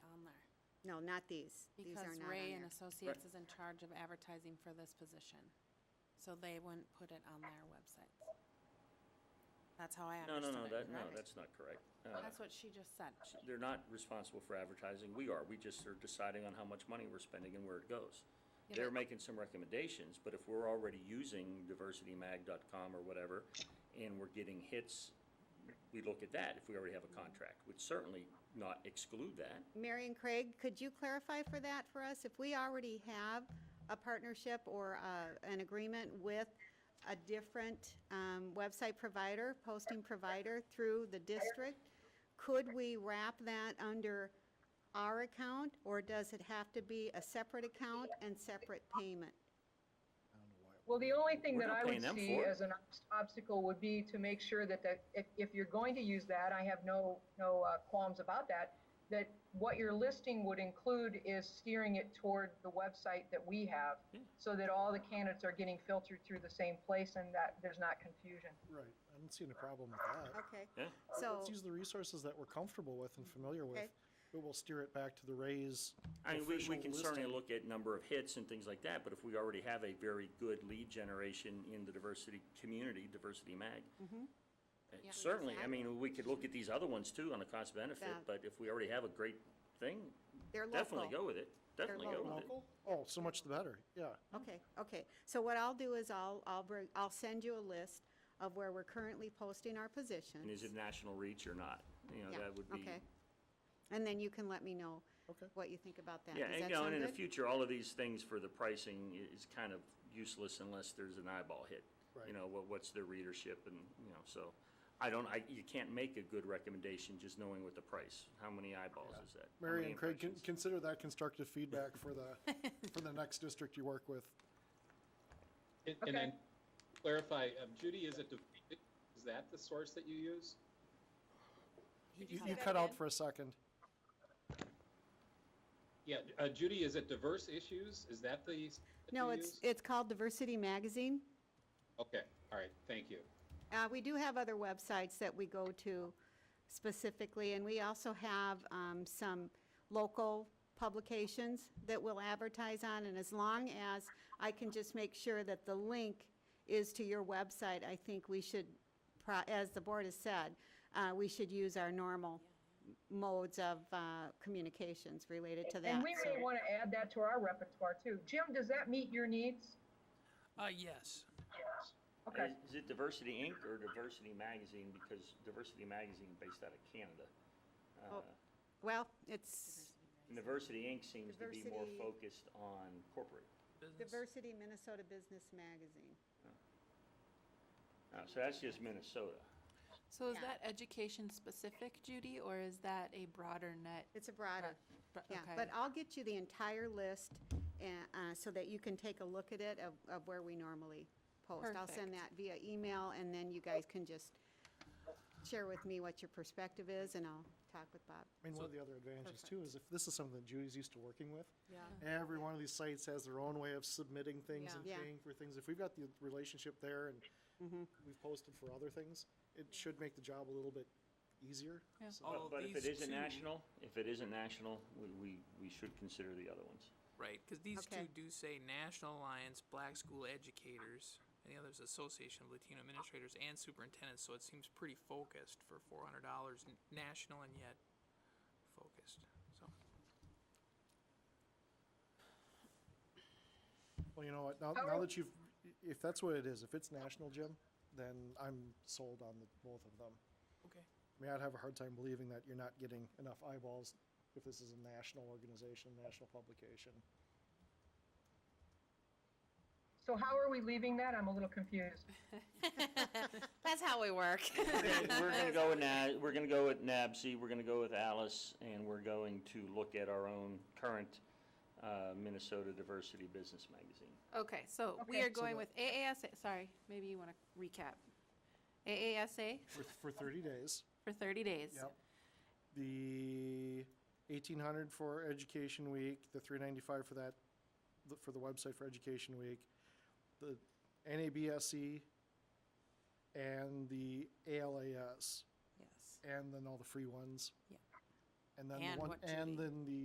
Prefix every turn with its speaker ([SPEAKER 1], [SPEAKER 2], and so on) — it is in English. [SPEAKER 1] No, not these. These are
[SPEAKER 2] Because
[SPEAKER 1] not on
[SPEAKER 2] Ray and
[SPEAKER 1] there.
[SPEAKER 2] Associates is in charge of advertising for this position. So they wouldn't put it on their websites. That's how I
[SPEAKER 3] No, no,
[SPEAKER 2] understood it.
[SPEAKER 3] no, that, no,
[SPEAKER 2] correct?
[SPEAKER 3] that's not correct. Uh,
[SPEAKER 2] That's what she just said. She-
[SPEAKER 3] They're not responsible for advertising, we are, we just are deciding on how much money we're spending and where it goes.
[SPEAKER 2] Yeah,
[SPEAKER 3] They're
[SPEAKER 2] but-
[SPEAKER 3] making some recommendations, but if we're already using diversitymag.com or whatever, and we're getting hits, we look at that if we already have a contract, would certainly not exclude that.
[SPEAKER 1] Mary and Craig, could you clarify for that for us? If we already have a partnership or uh, an agreement with a different um, website provider, posting provider through the district, could we wrap that under our account, or does it have to be a separate account and separate payment?
[SPEAKER 4] Well, the only thing
[SPEAKER 3] We're
[SPEAKER 4] that
[SPEAKER 3] not
[SPEAKER 4] I
[SPEAKER 3] paying
[SPEAKER 4] would
[SPEAKER 3] them
[SPEAKER 4] see
[SPEAKER 3] for it.
[SPEAKER 4] as an obst- obstacle would be to make sure that, that if, if you're going to use that, I have no, no uh, qualms about that, that what your listing would include is steering it toward the website that we have, so that all the candidates are getting filtered through the same place and that there's not confusion.
[SPEAKER 5] Right, I don't see any problem with that.
[SPEAKER 1] Okay.
[SPEAKER 3] Yeah.
[SPEAKER 1] So,
[SPEAKER 5] Let's use the resources that we're comfortable with and familiar
[SPEAKER 1] Okay.
[SPEAKER 5] with, but we'll steer it back to the Rays
[SPEAKER 3] I mean, we,
[SPEAKER 5] official
[SPEAKER 3] we can certainly
[SPEAKER 5] listing.
[SPEAKER 3] look at number of hits and things like that, but if we already have a very good lead generation in the diversity community, Diversity Mag, uh,
[SPEAKER 2] Yeah.
[SPEAKER 3] certainly, I mean, we could look at these other ones too on a cost
[SPEAKER 1] Yeah.
[SPEAKER 3] benefit, but if we already have a great thing,
[SPEAKER 1] They're
[SPEAKER 3] definitely
[SPEAKER 1] local.
[SPEAKER 3] go with it, definitely go with it.
[SPEAKER 5] Local? Oh, so much the better, yeah.
[SPEAKER 1] Okay, okay. So what I'll do is I'll, I'll bring, I'll send you a list of where we're currently posting our positions.
[SPEAKER 3] And is it national reach or not? You know,
[SPEAKER 1] Yeah,
[SPEAKER 3] that would be.
[SPEAKER 1] okay. And then you can let me know
[SPEAKER 5] Okay.
[SPEAKER 1] what you think about that.
[SPEAKER 3] Yeah,
[SPEAKER 1] Does
[SPEAKER 3] and, you
[SPEAKER 1] that
[SPEAKER 3] know, and
[SPEAKER 1] sound
[SPEAKER 3] in the
[SPEAKER 1] good?
[SPEAKER 3] future, all of these things for the pricing i- is kind of useless unless there's an eyeball hit. You
[SPEAKER 5] Right.
[SPEAKER 3] know, what, what's their readership and, you know, so, I don't, I, you can't make a good recommendation just knowing what the price, how many eyeballs is that? How
[SPEAKER 5] Mary
[SPEAKER 3] many
[SPEAKER 5] and Craig, con-
[SPEAKER 3] impressions?
[SPEAKER 5] consider that constructive feedback for the, for the next district you work with.
[SPEAKER 6] And and then clarify, um, Judy, is it, Dev- is that the source that you use?
[SPEAKER 2] he
[SPEAKER 5] You
[SPEAKER 2] just
[SPEAKER 5] you
[SPEAKER 2] said-
[SPEAKER 5] cut out for a second.
[SPEAKER 6] Yeah, uh, Judy, is it diverse issues? Is that the? s- that
[SPEAKER 1] No,
[SPEAKER 6] you
[SPEAKER 1] it's,
[SPEAKER 6] use?
[SPEAKER 1] it's called Diversity Magazine.
[SPEAKER 6] Okay, all right, thank you.
[SPEAKER 1] Uh, we do have other websites that we go to specifically, and we also have, um, some local publications that we'll advertise on, and as long as I can just make sure that the link is to your website, I think we should, pro- as the board has said, uh, we should use our normal modes of, uh, communications related to that.
[SPEAKER 4] And we
[SPEAKER 1] so-
[SPEAKER 4] may want to add that to our repertoire too. Jim, does that meet your needs?
[SPEAKER 7] Uh, yes.
[SPEAKER 4] Okay.
[SPEAKER 3] Is it Diversity Inc. or Diversity Magazine, because Diversity Magazine based out of Canada? Uh,
[SPEAKER 1] Oh, Well, it's
[SPEAKER 3] And Diversity Inc. seems to be more
[SPEAKER 1] Diversity-
[SPEAKER 3] focused on corporate.
[SPEAKER 7] Business.
[SPEAKER 1] Diversity Minnesota Business Magazine.
[SPEAKER 3] Uh, So that's just Minnesota.
[SPEAKER 2] So is that education specific, Judy, or is that a broader net?
[SPEAKER 1] It's a broader,
[SPEAKER 2] Right, but-
[SPEAKER 1] yeah,
[SPEAKER 2] okay.
[SPEAKER 1] but I'll get you the entire list, and, uh, so that you can take a look at it of, of where we normally post. I'll send that
[SPEAKER 2] Perfect.
[SPEAKER 1] via email, and then you guys can just share with me what your perspective is, and I'll talk with Bob.
[SPEAKER 5] I mean, one of the other advantages too is if this is something that Julie's used to working with,
[SPEAKER 2] Yeah.
[SPEAKER 5] every one of these sites has their own way of submitting things
[SPEAKER 2] Yeah.
[SPEAKER 5] and
[SPEAKER 1] Yeah.
[SPEAKER 5] paying for things. If we've got the relationship there and we've posted for other things, it should make the job a little bit easier.
[SPEAKER 2] Yeah.
[SPEAKER 5] So-
[SPEAKER 7] All
[SPEAKER 3] But if it
[SPEAKER 7] these
[SPEAKER 3] isn't
[SPEAKER 7] two-
[SPEAKER 3] national, if it isn't national, we, we, we should consider the other ones.
[SPEAKER 7] Right, because these
[SPEAKER 1] Okay.
[SPEAKER 7] two do say National Alliance Black School Educators, and the other's Association of Latino Administrators and Superintendents, so it seems pretty focused for four hundred dollars, national and yet focused, so.
[SPEAKER 5] Well, you know what, now, now that you've, if that's what it is, if it's national, Jim, then I'm sold on the, both of them.
[SPEAKER 7] Okay.
[SPEAKER 5] I mean, I'd have a hard time believing that you're not getting enough eyeballs if this is a national organization, national publication.
[SPEAKER 4] So how are we leaving that? I'm a little confused.
[SPEAKER 2] That's how we work.
[SPEAKER 3] We're gonna go with Na, we're gonna go with NABC, we're gonna go with Alice, and we're going to look at our own current uh, Minnesota Diversity Business Magazine.
[SPEAKER 2] Okay, so we
[SPEAKER 4] Okay.
[SPEAKER 2] are going
[SPEAKER 5] the-
[SPEAKER 2] with AASA, sorry, maybe you want to recap. AASA
[SPEAKER 5] For, for thirty days.
[SPEAKER 2] for 30 days.
[SPEAKER 5] Yep. The eighteen hundred for Education Week, the three ninety-five for that, the- for the website for Education Week, the NABSE, E, and the ALAS,
[SPEAKER 2] Yes.
[SPEAKER 5] and then all the free ones.
[SPEAKER 2] Yeah.
[SPEAKER 5] And then the
[SPEAKER 2] And
[SPEAKER 5] one,
[SPEAKER 2] what to
[SPEAKER 5] and
[SPEAKER 2] be.
[SPEAKER 5] then the